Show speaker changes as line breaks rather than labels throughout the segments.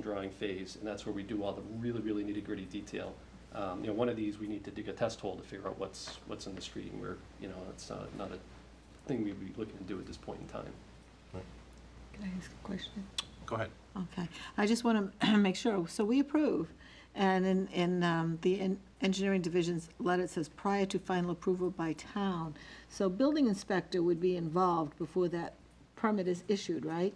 drawing phase, and that's where we do all the really, really nitty-gritty detail. Um, You know, one of these, we need to dig a test hole to figure out what's, what's in the street, and we're, you know, it's not, not a thing we'd be looking to do at this point in time.
Can I ask a question?
Go ahead.
Okay, I just want to make sure, so we approve, and in, in um, the en- engineering division's letter, it says prior to final approval by town. So building inspector would be involved before that permit is issued, right?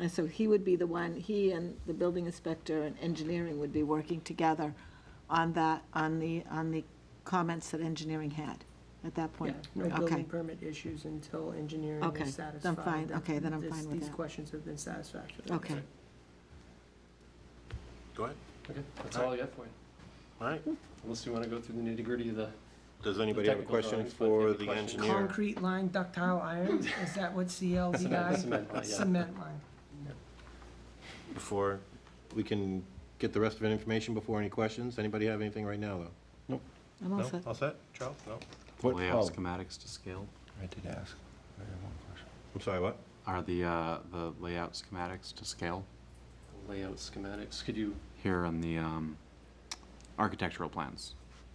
And so he would be the one, he and the building inspector and engineering would be working together on that, on the, on the comments that engineering had at that
Yeah,
point.
no building
Okay,
permit issues until engineering
Okay,
is
then
satisfied.
fine,
that
okay, then I'm
this-
fine with
These
that.
questions have been satisfactory.
okay.
Go ahead.
Okay, that's all I got for you.
All right.
Unless you want to go through the nitty-gritty of the,
Does anybody have a
Technical
question
drawings, but if you
for
have
the
questions-
engineer?
Concrete line ductile iron, is that what
Cement-
CLDI?
cement line, yeah.
Cement line.
Before, we can get the rest of the information before any questions. Anybody have anything right now, though?
I'm all set.
All set? Charles? No?
What,
Layout
oh,
schematics to scale?
I did ask. I have one question.
I'm sorry, what?
Are the, uh, the layout schematics to scale
layout schematics, could you,
here on the, um, architectural plans?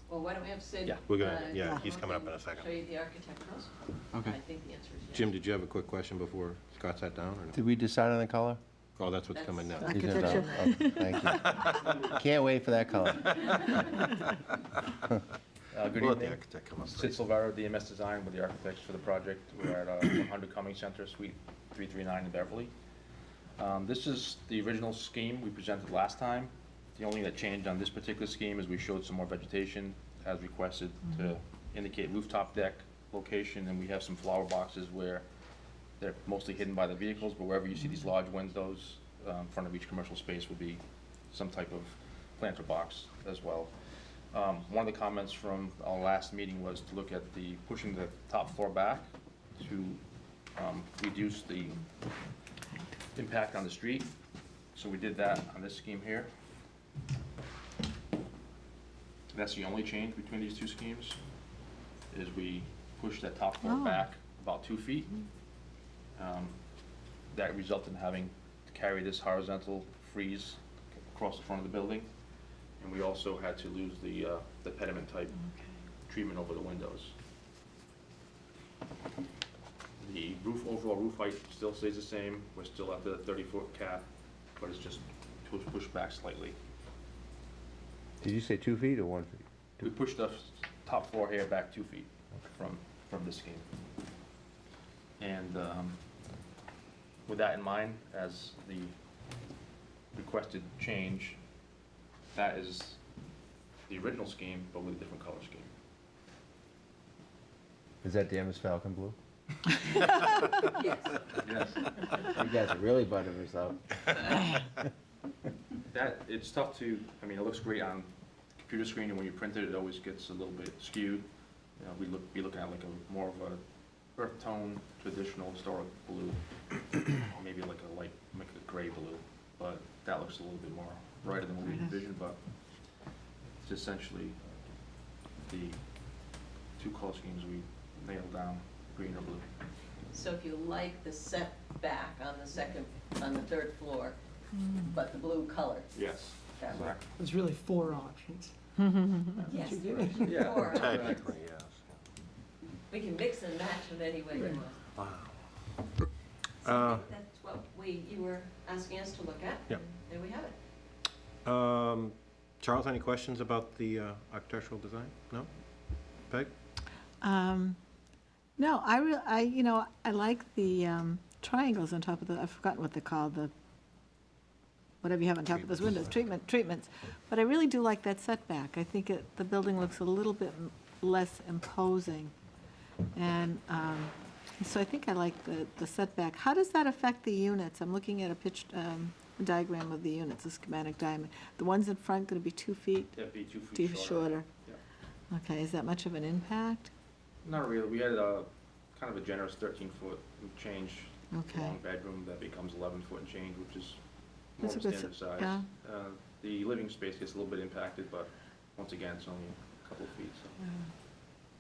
Well, why don't we have Sid?
Yeah.
We're gonna,
uh,
yeah,
come
he's
up
coming up in
and
a
Show
second.
you the architecturals?
Okay.
I think the answer is yes.
Jim, did you have a quick question before Scott sat down, or no?
Did we decide on the color?
Oh, that's what's coming now.
That's-
You did, uh, oh, Thank you. Can't wait for that color.
Uh, Good
We'll let the
evening.
architect come up
Sid
first.
Silvera, DMS Design, with the architects for the project. We're at uh, 100 Cummings Center, Suite 339 in Beverly. Um, This is the original scheme we presented last time. The only thing that changed on this particular scheme is we showed some more vegetation as requested to indicate rooftop deck location, and we have some flower boxes where they're mostly hidden by the vehicles, but wherever you see these large windows, um, in front of each commercial space would be some type of planter box as well. Um, One of the comments from our last meeting was to look at the, pushing the top floor back to um, reduce the impact on the street. So we did that on this scheme here. That's the only change between these two schemes, is we pushed that top floor
Oh.
back about two feet. Um, That resulted in having to carry this horizontal freeze across the front of the building. And we also had to lose the, uh, the pediment type treatment over the windows. The roof, overall roof height still stays the same, we're still at the thirty-foot cap, but it's just pu- pushed back slightly.
Did you say two feet or one feet?
We pushed the top floor here back two feet from, from this scheme. And um, with that in mind, as the requested change, that is the original scheme, but with a different color scheme.
Is that the Ms. Falcon blue?
Yes.
You guys are really buttering us up.
That, it's tough to, I mean, it looks great on computer screen, and when you print it, it always gets a little bit skewed. You know, we look, be looking at like a, more of a earth tone, traditional historic blue, or maybe like a light, like a gray blue, but that looks a little bit more brighter than what we envisioned, but it's essentially the two color schemes we nailed down, green or blue.
So if you like the setback on the second, on the third floor, but the blue color,
Yes.
that works.
There's really four options.
Yes,
you
there is
Yeah.
four.
Technically, yes.
We can mix and match in any way you
Right.
want. So I
Uh,
think that's what we, you were asking us to look at.
Yep.
And we have it.
Um, Charles, any questions about the uh, architectural design? No? Peg?
Um, No, I, re- I, you know, I like the um, triangles on top of the, I've forgotten what they're called, the, whatever you have on top of those windows, treatment, treatments. But I really do like that setback. I think it, the building looks a little bit m- less imposing. And um, so I think I like the the setback. How does that affect the units? I'm looking at a pitched um, diagram of the units, a schematic diagram. The ones in front going to be two feet,
That'd be two
two
feet
shorter?
Yep.
Okay, is that much of an impact?
Not really, we had a, kind of a generous thirteen foot change,
Okay.
long bedroom that becomes eleven foot and change, which is more
That's
of
a
a
good s-
standard size.
yeah.
Uh, The living space gets a little bit impacted, but once again, it's only a couple of feet, so.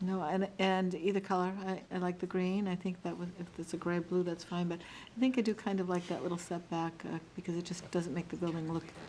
No, and, and either color, I, I like the green, I think that would, if it's a gray-blue, that's fine, but I think I do kind of like that little setback, uh, because it just doesn't make the building look